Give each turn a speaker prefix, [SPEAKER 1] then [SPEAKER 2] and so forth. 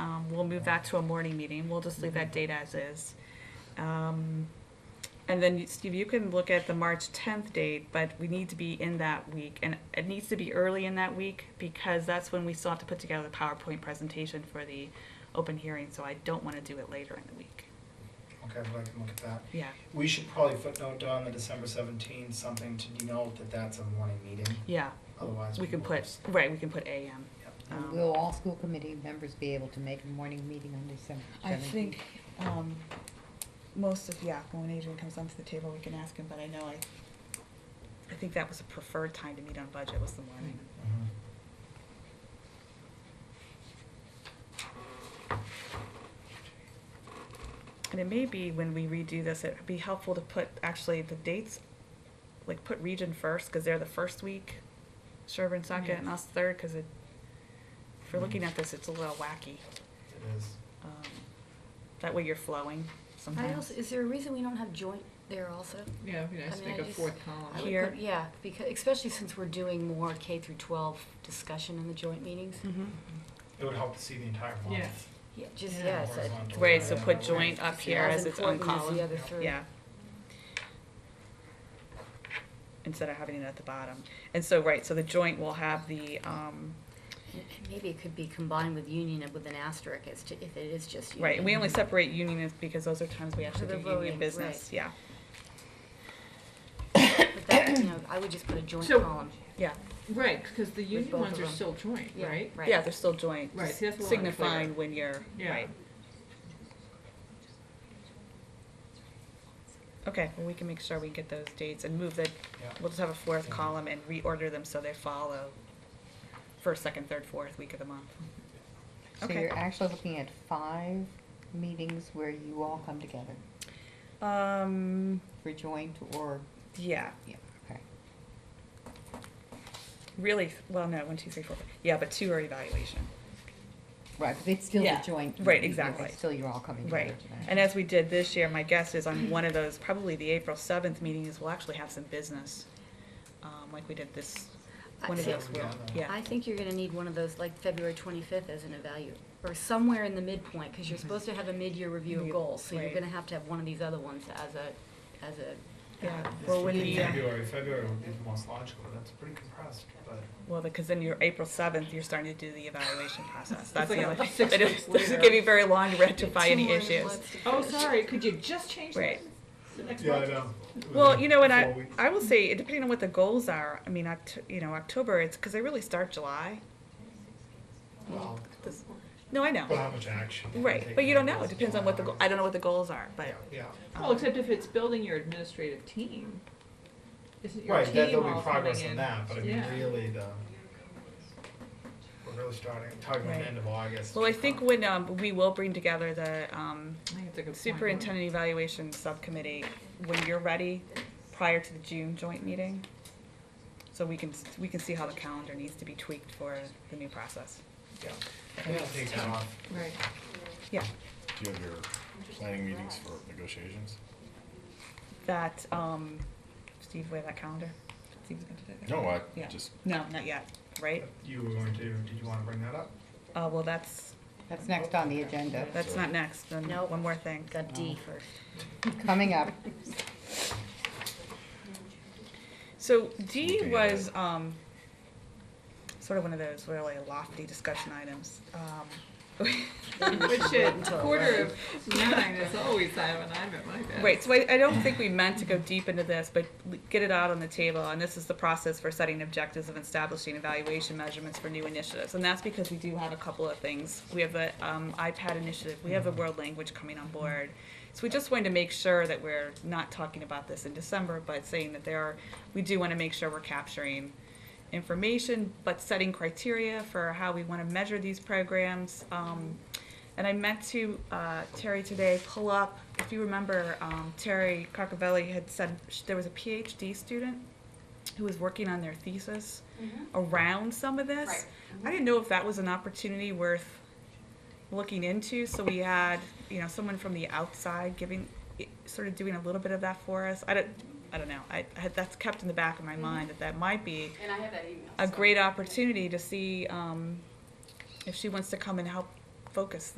[SPEAKER 1] Um, we'll move that to a morning meeting. We'll just leave that date as is. Um, and then you- Steve, you can look at the March tenth date, but we need to be in that week and it needs to be early in that week because that's when we still have to put together the PowerPoint presentation for the open hearing, so I don't wanna do it later in the week.
[SPEAKER 2] Okay, well, I can look at that.
[SPEAKER 1] Yeah,
[SPEAKER 2] We should probably footnote on the December seventeenth, something to denote that that's a morning meeting,
[SPEAKER 1] yeah,
[SPEAKER 2] otherwise.
[SPEAKER 1] we can
[SPEAKER 2] will
[SPEAKER 1] put,
[SPEAKER 2] just-
[SPEAKER 1] right, we can put AM.
[SPEAKER 2] Yep.
[SPEAKER 1] Um,
[SPEAKER 3] Will all school committee members be able to make a morning meeting on December
[SPEAKER 4] I
[SPEAKER 3] seventeenth?
[SPEAKER 4] think, um, most of, yeah, when Adrian comes onto the table, we can ask him, but I know I,
[SPEAKER 1] I think that was the preferred time to meet on budget was the morning.
[SPEAKER 2] Mhm.
[SPEAKER 5] Mm-hmm.
[SPEAKER 1] And it may be when we redo this, it'd be helpful to put actually the dates, like put region first, cause they're the first week, Sherburne second,
[SPEAKER 5] Mm-hmm.
[SPEAKER 1] and us third, cause it, if we're looking at this, it's a little wacky.
[SPEAKER 2] It is.
[SPEAKER 1] Um, That way you're flowing
[SPEAKER 5] I
[SPEAKER 1] sometimes.
[SPEAKER 5] also, is there a reason we don't have joint there also?
[SPEAKER 6] Yeah, it'd be
[SPEAKER 5] I
[SPEAKER 6] nice to
[SPEAKER 5] mean,
[SPEAKER 6] make
[SPEAKER 5] I
[SPEAKER 6] a
[SPEAKER 5] just-
[SPEAKER 6] fourth
[SPEAKER 5] I would
[SPEAKER 6] column.
[SPEAKER 1] Here.
[SPEAKER 5] put- Yeah, because, especially since we're doing more K through twelve discussion in the joint meetings.
[SPEAKER 1] Mhm.
[SPEAKER 2] It would help to see the entire month.
[SPEAKER 6] Yeah.
[SPEAKER 5] Yeah, just,
[SPEAKER 6] Yeah.
[SPEAKER 5] yeah, it's a-
[SPEAKER 2] Horizontal
[SPEAKER 1] Right, so
[SPEAKER 2] and
[SPEAKER 1] put
[SPEAKER 2] that
[SPEAKER 1] joint
[SPEAKER 2] way.
[SPEAKER 1] up here as its own
[SPEAKER 5] important as the
[SPEAKER 1] column,
[SPEAKER 5] other three.
[SPEAKER 1] yeah. Instead of having it at the bottom. And so, right, so the joint will have the, um,
[SPEAKER 5] And- and Maybe it could be combined with union and with an asterisk as to, if it is just union.
[SPEAKER 1] Right, and we only separate unionists because those are times we
[SPEAKER 5] For
[SPEAKER 1] actually
[SPEAKER 5] the
[SPEAKER 1] do union
[SPEAKER 5] voting,
[SPEAKER 1] business,
[SPEAKER 5] right.
[SPEAKER 1] yeah,
[SPEAKER 5] But that, you know, I would just put a joint
[SPEAKER 6] So-
[SPEAKER 5] column.
[SPEAKER 1] yeah.
[SPEAKER 6] Right, because the union
[SPEAKER 5] both
[SPEAKER 6] ones
[SPEAKER 5] of
[SPEAKER 6] are
[SPEAKER 5] them.
[SPEAKER 6] still joint,
[SPEAKER 5] Yeah,
[SPEAKER 6] right?
[SPEAKER 5] Right.
[SPEAKER 1] Yeah, they're still joint,
[SPEAKER 6] Right,
[SPEAKER 1] just
[SPEAKER 6] see, that's a little unclear.
[SPEAKER 1] signifying when you're,
[SPEAKER 6] Yeah.
[SPEAKER 1] right. Okay, well, we can make sure we get those dates and move the,
[SPEAKER 2] Yeah.
[SPEAKER 1] we'll just have a fourth
[SPEAKER 2] Yeah.
[SPEAKER 1] column and reorder them so they follow first, second, third, fourth week of the month.
[SPEAKER 3] So
[SPEAKER 1] Okay.
[SPEAKER 3] you're actually looking at five meetings where you all come together
[SPEAKER 5] Mm-hmm.
[SPEAKER 1] Um,
[SPEAKER 3] for joint or,
[SPEAKER 1] yeah,
[SPEAKER 3] yeah, okay.
[SPEAKER 1] really, well, no, one, two, three, four, five. yeah, but two are evaluation.
[SPEAKER 3] Right, but it's still
[SPEAKER 1] Yeah,
[SPEAKER 3] a joint.
[SPEAKER 1] right,
[SPEAKER 3] meeting, but
[SPEAKER 1] exactly.
[SPEAKER 3] It's still you're all coming together.
[SPEAKER 1] Right,
[SPEAKER 3] to
[SPEAKER 1] and
[SPEAKER 3] that.
[SPEAKER 1] as we did this year, my guess is on one of those, probably the April seventh meeting is we'll actually have some business, um, like we did this,
[SPEAKER 5] I-
[SPEAKER 1] one of
[SPEAKER 5] see,
[SPEAKER 1] those will, yeah.
[SPEAKER 5] I think you're gonna need one of those, like February twenty-fifth as an evaluate, or somewhere in the midpoint, because you're supposed to have a mid-year review of
[SPEAKER 1] Mid-
[SPEAKER 5] goals, so you're
[SPEAKER 1] Mm-hmm. right.
[SPEAKER 5] gonna have to have one of these other ones as a, as a.
[SPEAKER 1] Yeah.
[SPEAKER 5] uh,
[SPEAKER 2] This
[SPEAKER 1] Well, when
[SPEAKER 2] would be
[SPEAKER 1] the, uh,
[SPEAKER 2] February, February would be the most logical, that's pretty compressed, but.
[SPEAKER 1] Well, because then your April seventh, you're starting to do the evaluation process, that's
[SPEAKER 6] like
[SPEAKER 1] the only,
[SPEAKER 6] a six
[SPEAKER 1] it
[SPEAKER 6] weeks
[SPEAKER 1] is- doesn't
[SPEAKER 6] later.
[SPEAKER 1] give you very long to rectify
[SPEAKER 5] two
[SPEAKER 1] any
[SPEAKER 5] more
[SPEAKER 1] issues.
[SPEAKER 5] months to
[SPEAKER 6] Oh,
[SPEAKER 5] finish.
[SPEAKER 6] sorry, could you just change
[SPEAKER 1] Right.
[SPEAKER 6] that? The next
[SPEAKER 2] Yeah, I
[SPEAKER 6] one?
[SPEAKER 2] know. It was
[SPEAKER 1] Well,
[SPEAKER 2] like
[SPEAKER 1] you know, and
[SPEAKER 2] four
[SPEAKER 1] I,
[SPEAKER 2] weeks.
[SPEAKER 1] I will say, it depending on what the goals are, I mean, Oct- you know, October, it's, cause they really start July.
[SPEAKER 2] Well,
[SPEAKER 1] This- No, I
[SPEAKER 2] But how
[SPEAKER 1] know,
[SPEAKER 2] much action? you
[SPEAKER 1] right,
[SPEAKER 2] take
[SPEAKER 1] but you
[SPEAKER 2] on
[SPEAKER 1] don't know,
[SPEAKER 2] this
[SPEAKER 1] it depends on what the,
[SPEAKER 2] is
[SPEAKER 1] go- I don't know what the goals are, but.
[SPEAKER 2] Yeah, yeah.
[SPEAKER 6] Well, except if it's building your administrative team. Isn't your
[SPEAKER 2] Right, that
[SPEAKER 6] team
[SPEAKER 2] there'll
[SPEAKER 6] all
[SPEAKER 2] be progress
[SPEAKER 6] coming
[SPEAKER 2] in
[SPEAKER 6] in?
[SPEAKER 2] that, but I mean,
[SPEAKER 6] Yeah.
[SPEAKER 2] really the, we're really starting, talking about the
[SPEAKER 1] Right.
[SPEAKER 2] end of August.
[SPEAKER 1] Well, I think when, um, we will bring together the, um,
[SPEAKER 6] I think it's a good point.
[SPEAKER 1] superintendent evaluation subcommittee when you're ready, prior to the June joint meeting. So we can, we can see how the calendar needs to be tweaked for the new process.
[SPEAKER 2] Yeah, we can take that off.
[SPEAKER 6] Right.
[SPEAKER 1] Yeah,
[SPEAKER 7] Do you have your planning meetings for negotiations?
[SPEAKER 1] that, um, Steve, we have that calendar? Steve's gonna do that.
[SPEAKER 7] No, I
[SPEAKER 1] Yeah.
[SPEAKER 7] just,
[SPEAKER 1] No, not yet, right?
[SPEAKER 2] You were going to, did you wanna bring that up?
[SPEAKER 1] Uh, well, that's,
[SPEAKER 3] That's next on the agenda.
[SPEAKER 1] that's not next, then
[SPEAKER 5] Nope.
[SPEAKER 1] one more thing.
[SPEAKER 5] Got D first.
[SPEAKER 3] Coming up,
[SPEAKER 1] So D
[SPEAKER 7] Looking at
[SPEAKER 1] was um, sort of one of those really lofty discussion items. Um,
[SPEAKER 6] Which at
[SPEAKER 5] until
[SPEAKER 6] quarter of nine is always time when I'm at my desk.
[SPEAKER 1] Right, so I, I don't think we meant to go deep into this, but l- get it out on the table, and this is the process for setting objectives and establishing evaluation measurements for new initiatives, and that's because we do have a couple of things. We have the um, iPad initiative, we have the world language coming on board, so we just wanted to make sure that we're not talking about this in December, but saying that there are, we do want to make sure we're capturing information, but setting criteria for how we want to measure these programs. Um, and I meant to, uh, Terry today, pull up, if you remember, um, Terry Carcavelli had said sh- there was a PhD student who was working on their thesis
[SPEAKER 5] mm-hmm.
[SPEAKER 1] around some of this.
[SPEAKER 8] Right.
[SPEAKER 1] I didn't know if that was an opportunity worth looking into, so we had, you know, someone from the outside giving, i- sort of doing a little bit of that for us. I don't, I don't know, I, I had, that's kept in the back of my mind that that might be
[SPEAKER 8] And I have that email.
[SPEAKER 1] a
[SPEAKER 8] so-
[SPEAKER 1] great opportunity to see, um, if she wants to come and help focus